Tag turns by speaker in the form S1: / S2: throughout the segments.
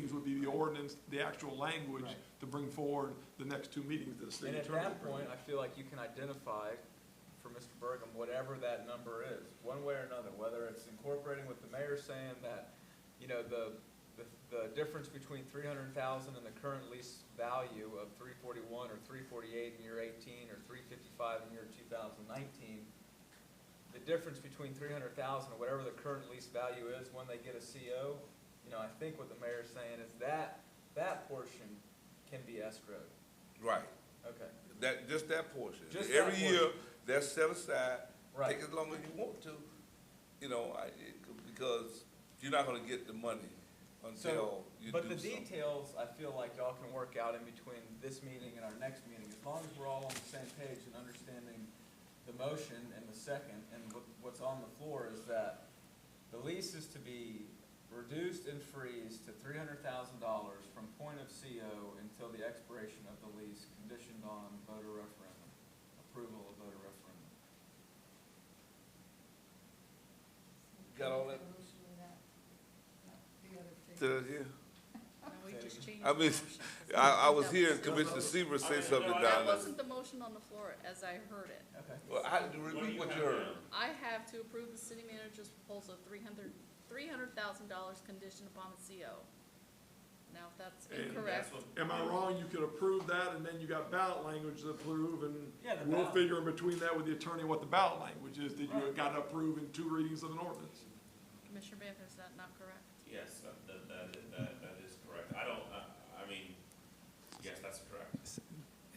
S1: the ordinance, the actual language
S2: Right.
S1: to bring forward the next two meetings that the state
S2: And at
S1: attorney will
S2: that
S1: bring.
S2: point, I feel like you can identify for Mr. Burgum, whatever that number is, one way or another, whether it's incorporating what the mayor's saying that, you know, the, the, the difference between three hundred thousand and the current lease value of three forty-one or three forty-eight in year eighteen or three fifty-five in year two thousand nineteen, the difference between three hundred thousand and whatever the current lease value is when they get a CO, you know, I think what the mayor's saying is that, that portion can be escrowed.
S3: Right,
S2: Okay,
S3: that, just that portion.
S2: Just that
S3: Every year, that's set aside,
S2: right.
S3: take as long as you want to, you know, I, it- because you're not gonna get the money until
S2: So,
S3: you do
S2: but the
S3: something.
S2: details, I feel like y'all can work out in between this meeting and our next meeting, as long as we're all on the same page and understanding the motion and the second, and what, what's on the floor is that the lease is to be reduced and freezed to three hundred thousand dollars from point of CO until the expiration of the lease, conditioned on voter referendum, approval of voter referendum.
S3: Got all that?
S4: Motion with that? No, the
S3: Did
S4: other figure.
S3: I hear?
S4: No, we just changed
S3: I
S4: the
S3: mean,
S4: motion.
S3: I, I was
S4: That
S3: hearing
S4: was-
S3: Commissioner Seaver say
S5: I-
S3: something
S5: no,
S3: down
S5: I-
S4: That
S3: there.
S4: wasn't the motion on the floor as I heard it.
S2: Okay.
S3: Well, I, repeat what
S5: What do
S3: you
S5: you
S3: heard.
S5: have
S4: I have to approve the city manager's proposal, three hundred, three hundred thousand dollars conditioned upon the CO. Now, if that's
S1: And
S4: incorrect,
S1: Am I wrong? You could approve that, and then you got ballot language to approve,
S2: Yeah, the
S1: and we'll
S2: ballot.
S1: figure in between that with the attorney what the ballot language is that you
S2: Right.
S1: gotta approve in two readings of an ordinance.
S4: Commissioner Banther, is that not correct?
S5: Yes, that, that, that, is- that, that is correct. I don't, I, I mean, yes, that's correct.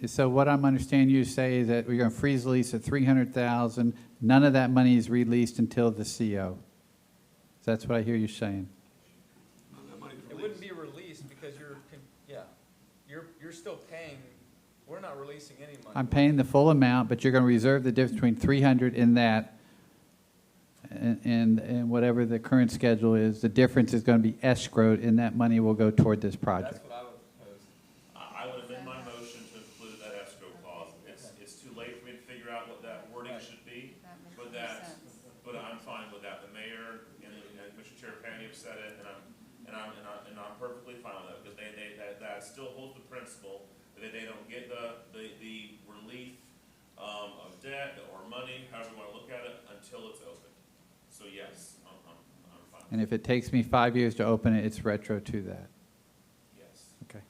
S6: So what I'm understanding you say is that we're going to freeze the lease at 300,000. None of that money is released until the CO. That's what I hear you saying.
S1: None of that money's
S2: It
S1: released.
S2: wouldn't be released because you're, con- yeah, you're, you're still paying, we're not releasing any money.
S6: I'm paying the full amount, but you're going to reserve the difference between 300 and that and, and- and whatever the current schedule is, the difference is going to be escrowed and that money will go toward this
S2: That's
S6: project.
S2: what I would propose.
S5: I, I would amend my motion to include that escrow clause. It's, it's too late for me to figure out what that wording
S2: Right.
S5: should be,
S4: That makes
S5: but
S4: more
S5: that's,
S4: sense.
S5: but I'm fine with that. The mayor and, and Commissioner Terrapini have said it, and I'm, and I'm, and I'm, and I'm perfectly fine with that, because they, they, that, that still holds the principle that they don't get the, the, the relief, um, of debt or money, however you wanna look at it, until it's open. So yes, I'm, I'm, I'm fine.
S6: And if it takes me five years to open it, it's retro to that.
S5: Yes.
S6: Okay.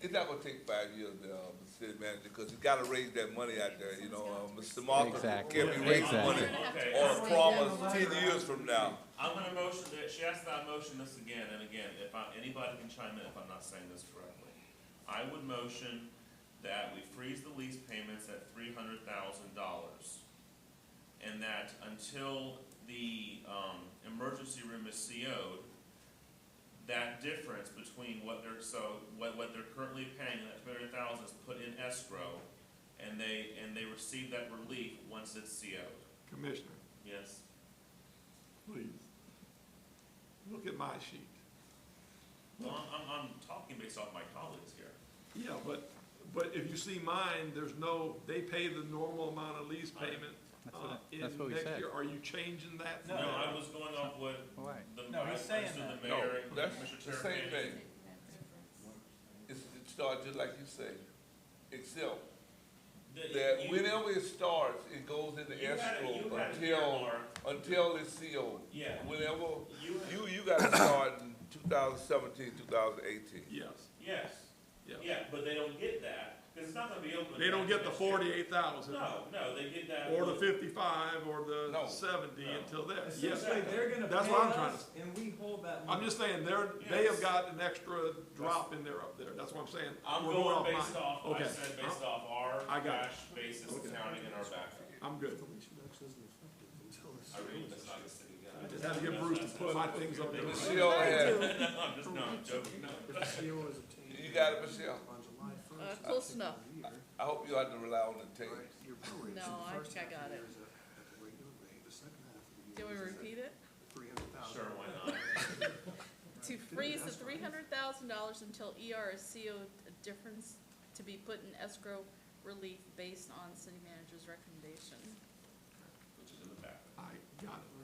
S3: It's not gonna take five years, uh, Mr. city manager, cause you gotta raise that money out there, you know, uh, Mr. Marcus can't
S6: Exactly.
S3: be raising
S6: Exactly.
S3: money
S4: We're gonna have to-
S3: on a promise ten years from now.
S5: I'm gonna motion that, she asked that I motion this again and again, if I, anybody can chime in if I'm not saying this correctly. I would motion that we freeze the lease payments at three hundred thousand dollars. And that until the, um, emergency room is CO'd, that difference between what they're, so, what, what they're currently paying, that three hundred thousand is put in escrow, and they, and they receive that relief once it's CO'd.
S1: Commissioner,
S5: Yes?
S1: please, look at my sheet.
S5: Well, I'm, I'm, I'm talking based off my colleagues here.
S1: Yeah, but, but if you see mine, there's no, they pay the normal amount of lease payment.
S6: That's
S1: uh,
S6: what I-
S1: in
S6: that's what we
S1: next
S6: said.
S1: year. Are you changing that?
S2: No.
S5: No, I was going off what
S6: Right.
S5: the,
S2: No,
S5: I
S2: he's
S5: assume
S2: saying that.
S5: the
S3: No,
S5: mayor and
S3: that's
S5: Commissioner
S3: the same
S5: Terrapini-
S3: thing.
S4: Take that difference.
S3: It's, it starts just like you say, except
S5: The-
S3: that
S5: you-
S3: whenever it starts, it goes into
S5: you had it-
S3: escrow
S5: you had it
S3: until,
S5: earmarked.
S3: until it's sealed.
S5: Yeah.
S3: Whenever,
S5: You, had-
S3: you, you gotta start in 2017, 2018.
S1: Yes,
S5: yes,
S1: yes.
S5: yeah, but they don't get that, because it's not gonna be open.
S1: They don't get the
S5: until next year.
S1: forty-eight thousand.
S5: No, no, they get that.
S1: Or the
S5: with-
S1: fifty-five, or the
S3: No.
S1: seventy
S5: No.
S1: until then, yes.
S2: Essentially, they're gonna
S1: That's
S2: pay
S1: what I'm trying
S2: us and we hold that money.
S1: I'm just saying, they're, they have
S5: Yes.
S1: got an extra drop in there up there, that's what I'm saying.
S5: I'm
S1: We're off
S5: going based
S1: mine.
S5: off, I
S1: Okay.
S5: said based off our
S1: I got it.
S5: cash basis
S1: Okay.
S5: accounting and our backup.
S1: I'm good.
S5: I really, that's not the city guy.
S1: Just had to get Bruce to put my things up there.
S3: Michelle had,
S5: No, I'm just, no, I'm joking, no.
S1: E
S3: you got it, Michelle?
S4: Uh, close enough.
S3: I hope you don't have to rely on the tape.
S4: No, I think I got it. Can we repeat it?
S5: Sure, why not?
S4: To freeze the three hundred thousand dollars until ER is CO'd, a difference to be put in escrow relief based on city manager's recommendation.
S5: Which is in the backup.
S1: I got it.